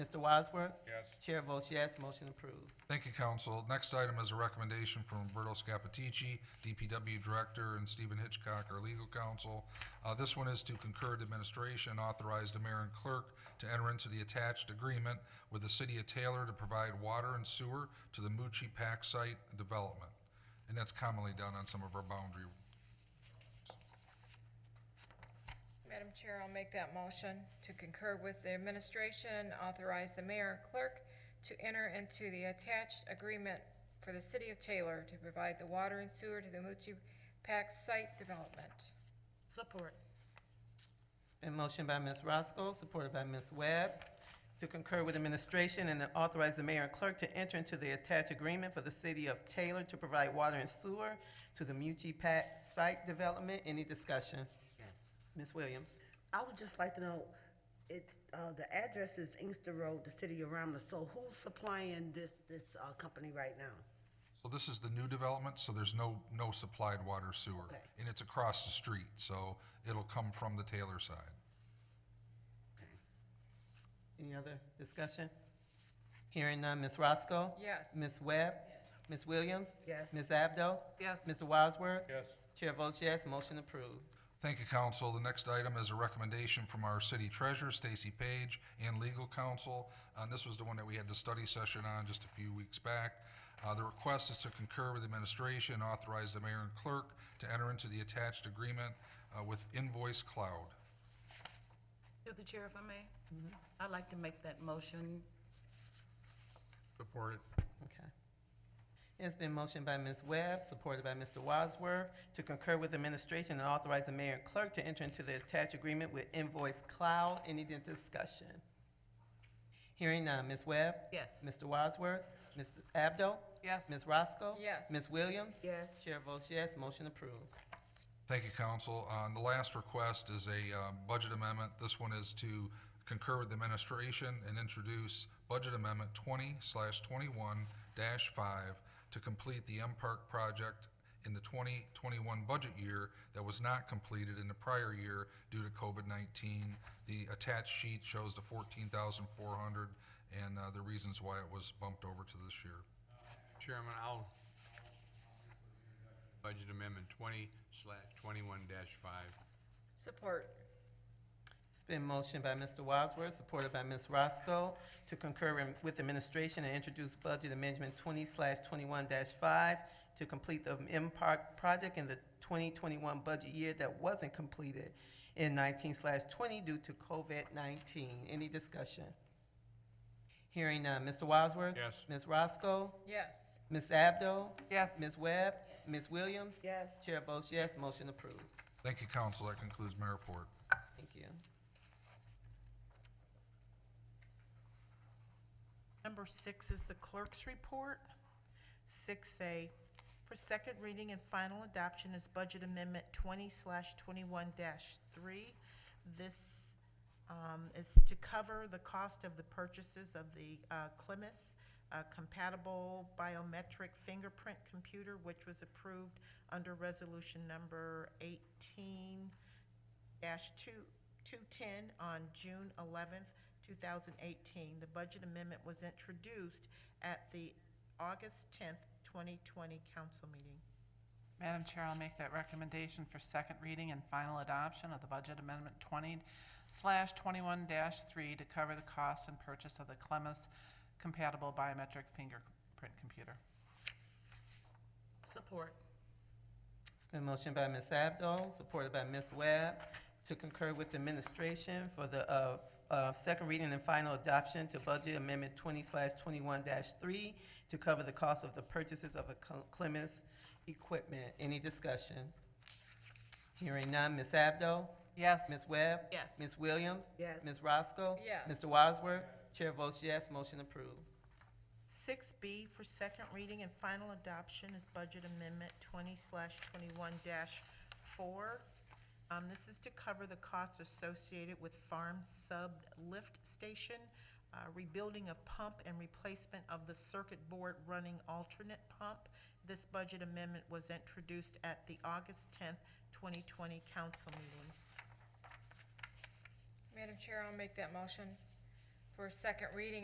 Mr. Wadsworth? Yes. Chair votes yes, motion approved. Thank you, council. Next item is a recommendation from Roberto Scapitici, DPW Director, and Stephen Hitchcock, our legal counsel. Uh, This one is to concur to administration, authorize the mayor and clerk to enter into the attached agreement with the city of Taylor to provide water and sewer to the Mucci Pack site development. And that's commonly done on some of our boundary. Madam Chair, I'll make that motion to concur with the administration and authorize the mayor and clerk to enter into the attached agreement for the city of Taylor to provide the water and sewer to the Mucci Pack site development. Support. It's been motioned by Ms. Roscoe, supported by Ms. Webb, to concur with administration and to authorize the mayor and clerk to enter into the attached agreement for the city of Taylor to provide water and sewer to the Mucci Pack site development. Any discussion? Yes. Ms. Williams? I would just like to know, it, uh, the address is Inkster Road, the city of Ramla, so who's supplying this, this, uh, company right now? So this is the new development, so there's no, no supplied water sewer. Okay. And it's across the street, so it'll come from the Taylor side. Any other discussion? Hearing none, Ms. Roscoe? Yes. Ms. Webb? Yes. Ms. Williams? Yes. Ms. Abdo? Yes. Mr. Wadsworth? Yes. Chair votes yes, motion approved. Thank you, council. The next item is a recommendation from our city treasurer, Stacy Page, and legal counsel. And this was the one that we had the study session on just a few weeks back. Uh, the request is to concur with administration, and authorize the mayor and clerk to enter into the attached agreement, uh, with Invoice Cloud. Through the chair, if I may? I'd like to make that motion. Support it. Okay. It's been motioned by Ms. Webb, supported by Mr. Wadsworth, to concur with administration and authorize the mayor and clerk to enter into the attached agreement with Invoice Cloud. Any di- discussion? Hearing none, Ms. Webb? Yes. Mr. Wadsworth? Ms. Abdo? Yes. Ms. Roscoe? Yes. Ms. Williams? Yes. Chair votes yes, motion approved. Thank you, council. Uh, and the last request is a, uh, budget amendment. This one is to concur with the administration and introduce budget amendment twenty slash twenty-one dash five to complete the M Park project in the twenty twenty-one budget year that was not completed in the prior year due to COVID nineteen. The attached sheet shows the fourteen thousand four hundred and, uh, the reasons why it was bumped over to this year. Chairman, I'll, budget amendment twenty slash twenty-one dash five. Support. It's been motioned by Mr. Wadsworth, supported by Ms. Roscoe, to concur in- with administration and introduce budget amendment twenty twenty-one five to complete the M Park project in the twenty twenty-one budget year that wasn't completed in nineteen twenty due to COVID nineteen. Any discussion? Hearing none. Mr. Wadsworth? Yes. Ms. Roscoe? Yes. Ms. Abdo? Yes. Ms. Webb? Ms. Williams? Yes. Chair votes yes, motion approved. Thank you, council. That concludes my report. Thank you. Number six is the clerk's report. Six A, for second reading and final adoption is Budget Amendment twenty slash twenty-one dash three. This um, is to cover the cost of the purchases of the uh, Clemis uh, compatible biometric fingerprint computer, which was approved under Resolution Number eighteen dash two, two-ten on June eleventh, two thousand eighteen. The budget amendment was introduced at the August tenth, twenty twenty council meeting. Madam Chair, I'll make that recommendation for second reading and final adoption of the Budget Amendment twenty slash twenty-one three to cover the cost and purchase of the Clemis compatible biometric fingerprint computer. Support. It's been motioned by Ms. Abdo, supported by Ms. Webb, to concur with the administration for the, uh, uh, second reading and final adoption to Budget Amendment twenty twenty-one three to cover the cost of the purchases of a Cle- Clemens equipment. Any discussion? Hearing none, Ms. Abdo? Yes. Ms. Webb? Yes. Ms. Williams? Yes. Ms. Roscoe? Yes. Mr. Wadsworth? Chair votes yes, motion approved. Six B for second reading and final adoption is Budget Amendment twenty slash twenty-one dash four. Um, this is to cover the costs associated with farm sub lift station, uh, rebuilding of pump and replacement of the circuit board running alternate pump. This budget amendment was introduced at the August tenth, twenty twenty council meeting. Madam Chair, I'll make that motion for second reading